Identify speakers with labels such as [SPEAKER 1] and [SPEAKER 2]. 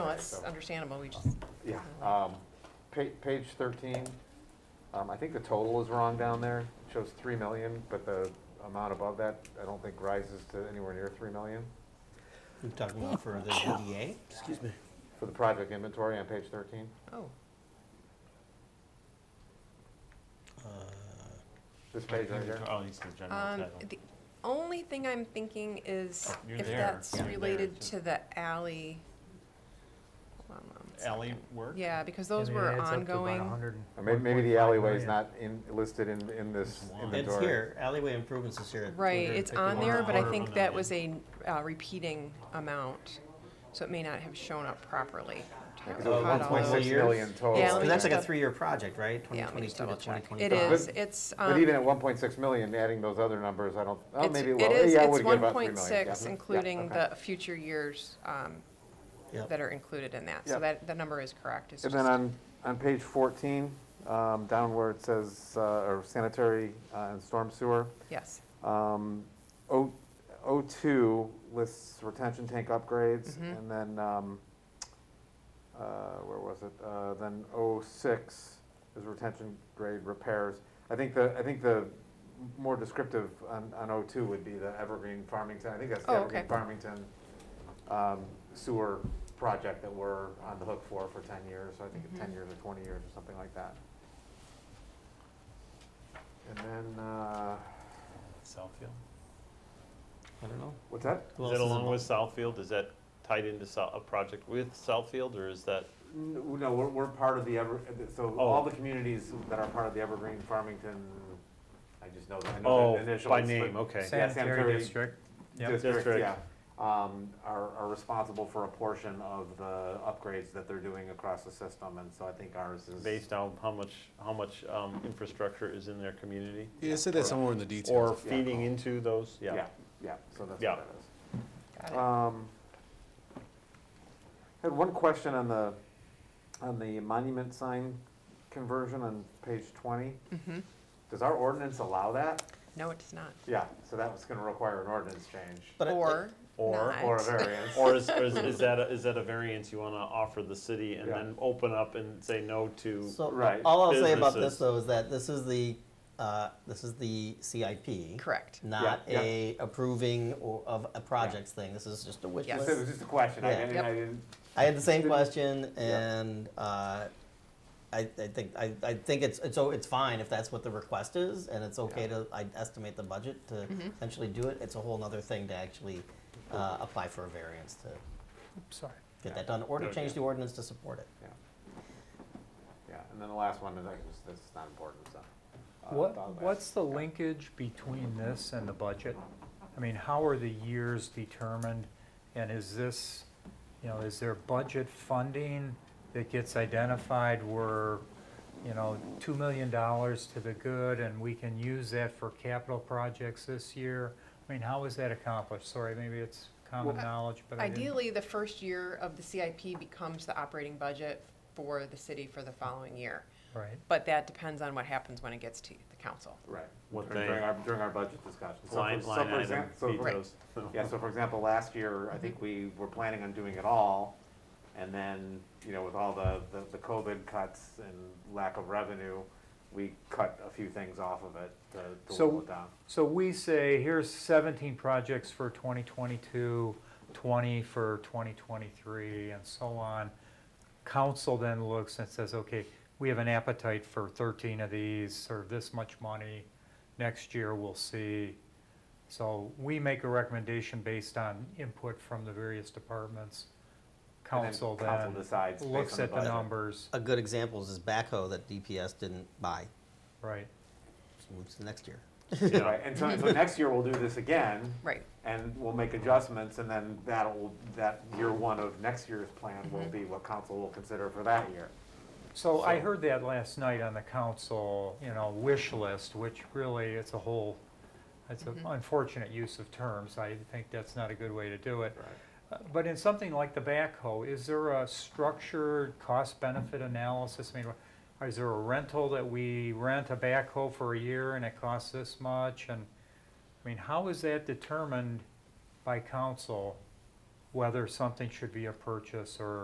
[SPEAKER 1] it's
[SPEAKER 2] so-
[SPEAKER 1] understandable, we just,
[SPEAKER 2] Yeah, um, pa- page thirteen, um, I think the total is wrong down there, it shows three million, but the amount above that, I don't think rises to anywhere near three million.
[SPEAKER 3] We're talking about for the DDA?
[SPEAKER 4] Excuse me.
[SPEAKER 2] For the project inventory on page thirteen,
[SPEAKER 1] oh,
[SPEAKER 3] Uh,
[SPEAKER 2] this page right here.
[SPEAKER 5] Oh, it's the general
[SPEAKER 1] um,
[SPEAKER 5] title.
[SPEAKER 1] the only thing I'm thinking is
[SPEAKER 5] Oh, you're
[SPEAKER 1] if
[SPEAKER 5] there.
[SPEAKER 1] that's
[SPEAKER 5] You're there,
[SPEAKER 1] related
[SPEAKER 5] just-
[SPEAKER 1] to the alley. Hold on one second.
[SPEAKER 5] Alley work?
[SPEAKER 1] Yeah, because those were ongoing.
[SPEAKER 2] Or may- Maybe the alleyway is not in, listed in, in this
[SPEAKER 5] It's long. It's
[SPEAKER 3] It's
[SPEAKER 2] inventory.
[SPEAKER 3] here, alleyway improvements is here. at
[SPEAKER 1] Right, it's on
[SPEAKER 3] 251.
[SPEAKER 1] there, but I
[SPEAKER 5] Quarter of
[SPEAKER 1] think
[SPEAKER 5] a
[SPEAKER 1] that was a uh, repeating amount, so it may not have shown up properly.
[SPEAKER 2] Because it
[SPEAKER 3] Oh,
[SPEAKER 2] was
[SPEAKER 1] Caught
[SPEAKER 2] one
[SPEAKER 1] all
[SPEAKER 2] point
[SPEAKER 1] those.
[SPEAKER 2] six
[SPEAKER 3] years?
[SPEAKER 2] million total.
[SPEAKER 1] Yeah, let me
[SPEAKER 3] And
[SPEAKER 1] just
[SPEAKER 3] that's like a
[SPEAKER 1] dou-
[SPEAKER 3] three-year project, right?
[SPEAKER 1] Yeah, let me just double
[SPEAKER 3] 2022 to
[SPEAKER 1] check.
[SPEAKER 3] 2025.
[SPEAKER 1] It is, it's, um.
[SPEAKER 2] But even at one point six million, adding those other numbers, I don't, oh,
[SPEAKER 1] it's-
[SPEAKER 2] maybe it
[SPEAKER 1] it
[SPEAKER 2] will,
[SPEAKER 1] is-
[SPEAKER 2] yeah, it would
[SPEAKER 1] It's
[SPEAKER 2] get
[SPEAKER 1] one
[SPEAKER 2] about three million.
[SPEAKER 1] point
[SPEAKER 2] yeah.
[SPEAKER 1] six,
[SPEAKER 2] Yeah,
[SPEAKER 1] including
[SPEAKER 2] okay.
[SPEAKER 1] the future years, um,
[SPEAKER 3] Yep.
[SPEAKER 1] that are included in that, so
[SPEAKER 2] Yep.
[SPEAKER 1] that, the number is correct, it's
[SPEAKER 2] And
[SPEAKER 1] just.
[SPEAKER 2] then on, on page 14, um, down where it says, uh, or sanitary uh, and storm sewer,
[SPEAKER 1] Yes,
[SPEAKER 2] um, O, O2 lists retention tank upgrades,
[SPEAKER 1] Mhm.
[SPEAKER 2] and then, um, uh, where was it? Uh, Then O6 is retention grade repairs. I think the, I think the more descriptive on, on O2 would be the Evergreen Farmington, I think that's the
[SPEAKER 1] Oh,
[SPEAKER 2] Evergreen
[SPEAKER 1] okay.
[SPEAKER 2] Farmington um, sewer project that we're on the hook for for 10 years, so I
[SPEAKER 1] Mm-hmm.
[SPEAKER 2] think it's 10 years or 20 years or something like that. And then, uh,
[SPEAKER 5] Southfield.
[SPEAKER 3] I don't know.
[SPEAKER 2] what's that?
[SPEAKER 3] Who
[SPEAKER 5] Is
[SPEAKER 3] else
[SPEAKER 5] that along with
[SPEAKER 3] involved?
[SPEAKER 5] Southfield? Is that tied into Sou- a project with Southfield or is that?
[SPEAKER 2] N- No, we're, we're part of the Ever, so
[SPEAKER 5] Oh.
[SPEAKER 2] all the communities that are part of the Evergreen Farmington, I just know that, I know
[SPEAKER 5] Oh,
[SPEAKER 2] the initials.
[SPEAKER 5] by
[SPEAKER 2] but-
[SPEAKER 5] name, okay.
[SPEAKER 2] Yeah, sanitary
[SPEAKER 4] Yep.
[SPEAKER 2] district,
[SPEAKER 5] District.
[SPEAKER 2] yeah, um, are, are responsible for a portion of the upgrades that they're doing across the system, and so I think ours is.
[SPEAKER 5] Based on how much, how much um, infrastructure is in their community?
[SPEAKER 4] Yeah, say that somewhere in the details.
[SPEAKER 5] Or
[SPEAKER 2] Yeah.
[SPEAKER 5] feeding into those,
[SPEAKER 2] Yeah,
[SPEAKER 5] yeah.
[SPEAKER 2] yeah, so that's
[SPEAKER 5] Yeah.
[SPEAKER 2] what it is.
[SPEAKER 1] got it.
[SPEAKER 2] Um, I had one question on the, on the monument sign conversion on page twenty.
[SPEAKER 1] Mhm.
[SPEAKER 2] Does our ordinance allow that?
[SPEAKER 1] No, it does not.
[SPEAKER 2] Yeah, so that was gonna require an ordinance change
[SPEAKER 3] But it-
[SPEAKER 1] Or
[SPEAKER 5] Or-
[SPEAKER 1] not.
[SPEAKER 2] or a variance.
[SPEAKER 5] Or is, or is- is that, a- is that a variance you want to offer the city and
[SPEAKER 2] Yeah.
[SPEAKER 5] then open up and say no to?
[SPEAKER 3] So,
[SPEAKER 2] Right.
[SPEAKER 3] all I'll say about this
[SPEAKER 5] Businesses.
[SPEAKER 3] though is that this is the, uh, this is the CIP.
[SPEAKER 1] Correct,
[SPEAKER 3] Not
[SPEAKER 2] Yeah, yeah.
[SPEAKER 3] a approving or of a projects thing. This is just a wish
[SPEAKER 1] Yes.
[SPEAKER 2] Just- It
[SPEAKER 3] list.
[SPEAKER 2] was just a question, I
[SPEAKER 3] Yeah.
[SPEAKER 2] didn't,
[SPEAKER 1] Yep.
[SPEAKER 2] I didn't,
[SPEAKER 3] I had the same
[SPEAKER 2] Didn't-
[SPEAKER 3] question,
[SPEAKER 2] Yeah.
[SPEAKER 3] and uh, I, I think I, I think it's it's so it's fine if that's what the request is, and it's okay to I estimate the budget to essentially do it. It's a whole other thing to actually uh, apply for a variance to
[SPEAKER 4] Sorry.
[SPEAKER 3] get that done, or to
[SPEAKER 2] Yeah.
[SPEAKER 3] change the ordinance to support it.
[SPEAKER 2] yeah. Yeah, and then the last one is, I just, that's not important, so. uh, thought
[SPEAKER 4] What,
[SPEAKER 2] about it.
[SPEAKER 4] what's the linkage between this and the budget? I mean, how are the years determined? And is this, you know, is there budget funding that gets identified where, you know, two million dollars to the good and we can use that for capital projects this year? I mean, how is that accomplished? Sorry, maybe it's common
[SPEAKER 1] Well,
[SPEAKER 4] knowledge, but I didn't.
[SPEAKER 1] Ideally, the first year of the CIP becomes the operating budget for the city for the following year.
[SPEAKER 4] Right.
[SPEAKER 1] But that depends on what happens when it gets to the council.
[SPEAKER 2] Right,
[SPEAKER 5] What
[SPEAKER 2] during
[SPEAKER 5] they-
[SPEAKER 2] during our, during our budget discussion. So for-
[SPEAKER 5] Line,
[SPEAKER 2] so
[SPEAKER 5] line
[SPEAKER 2] for
[SPEAKER 5] item
[SPEAKER 2] exam- so for-
[SPEAKER 5] details.
[SPEAKER 2] Yeah, so for example, last year, I think we were planning on doing it all, and then, you know, with all the, the- the COVID cuts and lack of revenue, we cut a few things off of it to, to
[SPEAKER 4] So-
[SPEAKER 2] whittle it down.
[SPEAKER 4] So we say, here's 17 projects for 2022, 20 for 2023, and so on. Council then looks and says, okay, we have an appetite for 13 of these, or this much money. Next year, we'll see. So we make a recommendation based on input from the various departments.
[SPEAKER 2] And
[SPEAKER 4] Council
[SPEAKER 2] Council
[SPEAKER 4] then
[SPEAKER 2] decides based
[SPEAKER 4] looks
[SPEAKER 2] on
[SPEAKER 4] at
[SPEAKER 2] the
[SPEAKER 4] the
[SPEAKER 2] budget.
[SPEAKER 4] numbers,
[SPEAKER 3] A good example is this backhoe that DPS didn't buy.
[SPEAKER 4] right?
[SPEAKER 3] Just moves to next year.
[SPEAKER 5] Yeah.
[SPEAKER 2] Right, and so, so next year we'll do this again,
[SPEAKER 1] Right,
[SPEAKER 2] and we'll make adjustments, and then that'll, that year one of next year's plan will be what council will consider for that year.
[SPEAKER 4] So I heard that last night on the council, you know, wish list, which really, it's a whole, it's an unfortunate use of terms. I think that's not a good way to do it. Uh, But in something like the backhoe, is there a structured cost-benefit analysis? I mean, wha- is there a rental that we rent a backhoe for a year and it costs this much? And, I mean, how is that determined by council, whether something should be a purchase or